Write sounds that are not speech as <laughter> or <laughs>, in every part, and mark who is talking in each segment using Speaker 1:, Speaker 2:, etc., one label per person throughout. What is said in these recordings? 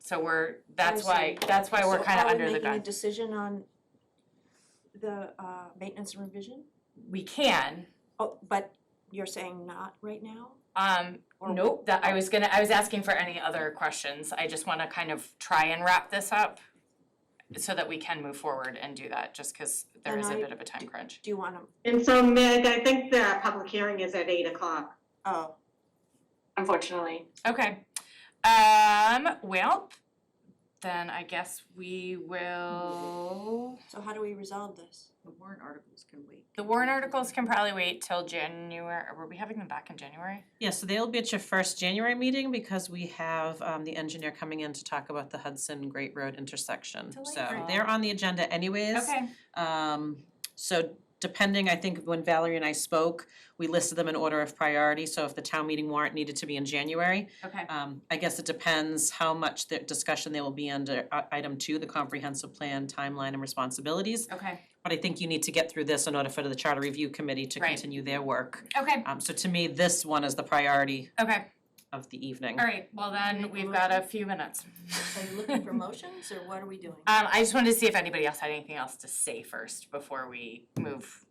Speaker 1: So we're, that's why,
Speaker 2: see.
Speaker 1: that's why we're
Speaker 2: So
Speaker 1: kind of under the
Speaker 2: Are we making
Speaker 1: gun.
Speaker 2: a decision on the uh maintenance and revision?
Speaker 1: We can,
Speaker 2: Oh, but you're saying not right now?
Speaker 1: um,
Speaker 2: Or-
Speaker 1: nope, that, I was gonna, I was asking for any other questions. I just wanna kind of try and wrap this up so that we can move forward and do that, just cause there
Speaker 2: And
Speaker 1: is a
Speaker 2: I
Speaker 1: bit of a time crunch.
Speaker 2: Do you wanna,
Speaker 3: And so Meg, I think the public hearing is at eight o'clock.
Speaker 2: oh,
Speaker 4: unfortunately.
Speaker 1: Okay, um, well, then I guess we will.
Speaker 2: so how do we resolve this?
Speaker 5: The warrant articles can wait.
Speaker 1: The warrant articles can probably wait till January, were we having them back in January?
Speaker 6: Yeah, so they'll be at your first January meeting because we have um the engineer coming in to talk about the Hudson Great Road intersection. So
Speaker 1: Delightful.
Speaker 6: they're on the agenda anyways.
Speaker 1: Okay,
Speaker 6: Um so depending, I think when Valerie and I spoke, we listed them in order of priority, so if the town meeting warrant needed to be in January,
Speaker 1: okay,
Speaker 6: um I guess it depends how much the discussion they will be under uh, item two, the comprehensive plan timeline and responsibilities.
Speaker 2: Uh,
Speaker 1: okay,
Speaker 6: But I think you need to get through this in order for the charter review committee to
Speaker 1: Right.
Speaker 6: continue their work.
Speaker 1: okay,
Speaker 6: Um so to me, this one is the priority
Speaker 1: okay,
Speaker 6: of the evening.
Speaker 1: all right, well then, we've got a few minutes.
Speaker 2: Are you looking
Speaker 1: <laughs>
Speaker 2: for motions or what are we doing?
Speaker 1: Um, I just wanted to see if anybody else had anything else to say first before we move.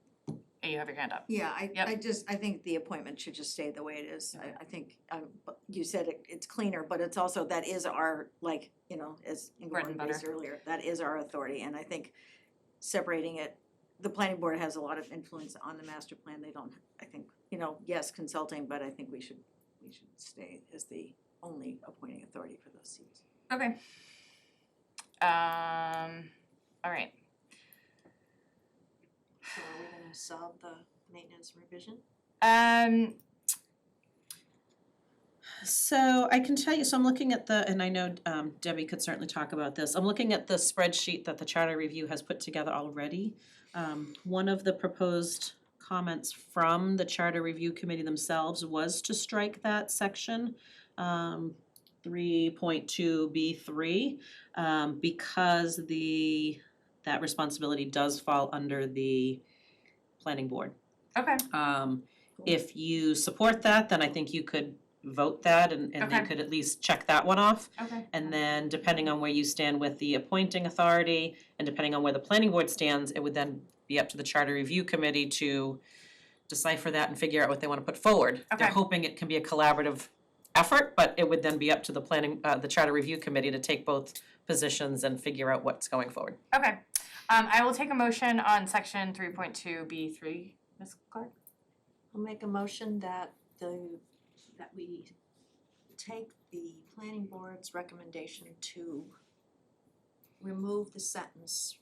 Speaker 1: You have your hand up.
Speaker 5: Yeah, I,
Speaker 1: Yep.
Speaker 5: I just, I think the appointment should just stay the way it is.
Speaker 1: Okay.
Speaker 5: I, I think, um, but you said it, it's cleaner, but it's also, that is our, like, you know, as
Speaker 1: Bread
Speaker 5: Ingrid
Speaker 1: and
Speaker 5: raised earlier, that is our authority, and I think separating it, the planning board has a lot of influence on the master plan, they don't, I think, you know, yes, consulting, but I think we should, we should stay as the only appointing authority for those seats.
Speaker 1: Okay. Um, all right,
Speaker 2: So are we gonna solve the maintenance and revision?
Speaker 1: um,
Speaker 6: So I can tell you, so I'm looking at the, and I know um Debbie could certainly talk about this, I'm looking at the spreadsheet that the charter review has put together already. Um one of the proposed comments from the charter review committee themselves was to strike that section. Um three point two B three, um because the, that responsibility does fall under the planning board.
Speaker 1: okay,
Speaker 6: Um, if you support that, then I think you could vote that and, and they
Speaker 1: Okay.
Speaker 6: could at least check that one off.
Speaker 1: okay.
Speaker 6: And then depending on where you stand with the appointing authority and depending on where the planning board stands, it would then be up to the charter review committee to decipher that and figure out what they wanna put forward. They're
Speaker 1: Okay.
Speaker 6: hoping it can be a collaborative effort, but it would then be up to the planning, uh, the charter review committee to take both positions and figure out what's going forward.
Speaker 1: Okay, um, I will take a motion on section three point two B three, Ms. Clark?
Speaker 2: I'll make a motion that the, that we take the planning board's recommendation to remove the sentence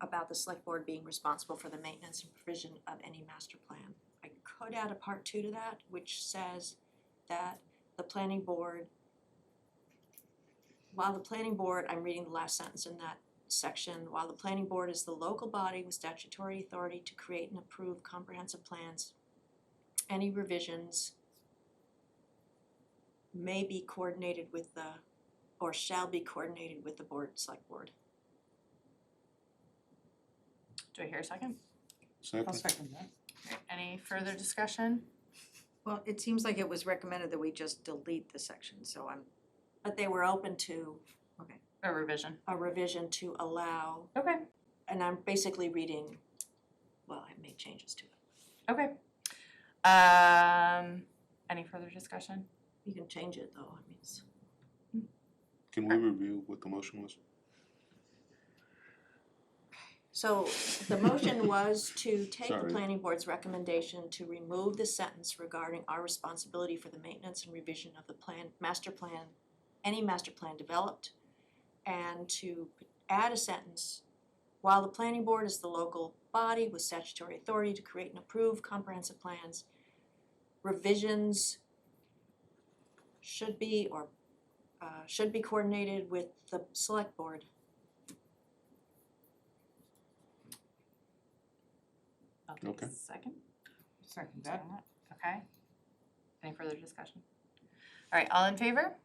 Speaker 2: about the select board being responsible for the maintenance and provision of any master plan. I could add a part two to that, which says that the planning board, while the planning board, I'm reading the last sentence in that section, while the planning board is the local body with statutory authority to create and approve comprehensive plans, any revisions may be coordinated with the, or shall be coordinated with the board, select board.
Speaker 1: Do I hear a second?
Speaker 7: Second,
Speaker 6: second that.
Speaker 1: Any further discussion?
Speaker 5: Well, it seems like it was recommended that we just delete the section, so I'm,
Speaker 2: But they were open to
Speaker 1: A revision?
Speaker 2: a revision to allow,
Speaker 1: Okay.
Speaker 2: and I'm basically reading, well, I made changes to it.
Speaker 1: Okay. Um, any further discussion?
Speaker 2: You can change it though, I mean, it's-
Speaker 7: can we review what the motion was?
Speaker 2: So the motion was to take the
Speaker 7: Sorry.
Speaker 2: planning board's recommendation to remove the sentence regarding our responsibility for the maintenance and revision of the plan, master plan, any master plan developed, and to add a sentence, while the planning board is the local body with statutory authority to create and approve comprehensive plans, revisions should be or uh should be coordinated with the select board.
Speaker 1: I'll take a
Speaker 7: Okay.
Speaker 1: Second? Second that. Okay. Any further discussion? All right, all in favor?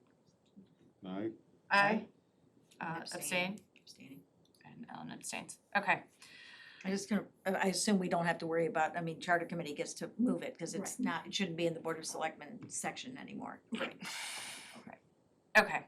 Speaker 7: <laughs> Aye,
Speaker 1: Aye.
Speaker 5: I'm
Speaker 1: Uh, abstain,
Speaker 5: abstaining.
Speaker 1: and Ellen abstains. Okay,
Speaker 5: I just gonna, I I assume we don't have to worry about, I mean, charter committee gets to move it, cause it's not, it shouldn't be in the board of selectmen section anymore.
Speaker 1: okay.